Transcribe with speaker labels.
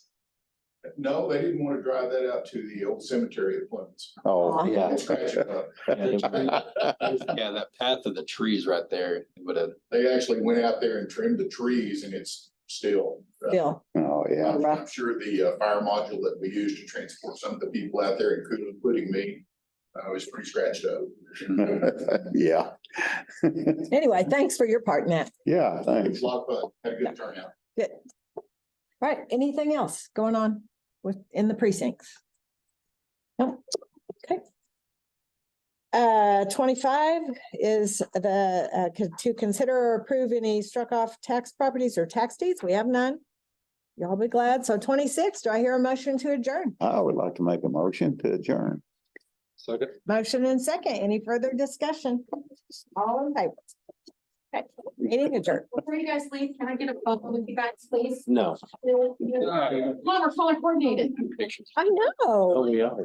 Speaker 1: No, they didn't wanna drive that out to the old cemetery at Plymouth.
Speaker 2: Oh,
Speaker 3: yeah.
Speaker 1: And scratch it up.
Speaker 3: Yeah, that path of the trees right there would have,
Speaker 1: They actually went out there and trimmed the trees and it's still. uh,
Speaker 2: Bill,
Speaker 4: Oh, yeah.
Speaker 1: I'm I'm sure the uh, fire module that we used to transport some of the people out there, including including me, I was pretty scratched up.
Speaker 4: Yeah.
Speaker 2: anyway, thanks for your part, Matt.
Speaker 4: Yeah,
Speaker 1: It was
Speaker 4: thanks.
Speaker 1: a lot of fun, had a good turnout.
Speaker 2: Right, anything else going on with, in the precincts? No, okay. Uh, twenty-five is the, uh, co- to consider or approve any struck off tax properties or tax deeds. We have none. Y'all be glad. So twenty-six, do I hear a motion to adjourn?
Speaker 4: I would like to make a motion to adjourn.
Speaker 3: second,
Speaker 2: Motion and second. Any further discussion? All in favor? Okay, meeting adjourned.
Speaker 5: Before you guys leave, can I get a photo with you guys, please?
Speaker 3: no.
Speaker 5: Come on, we're fully coordinated.
Speaker 2: I know.
Speaker 3: yeah.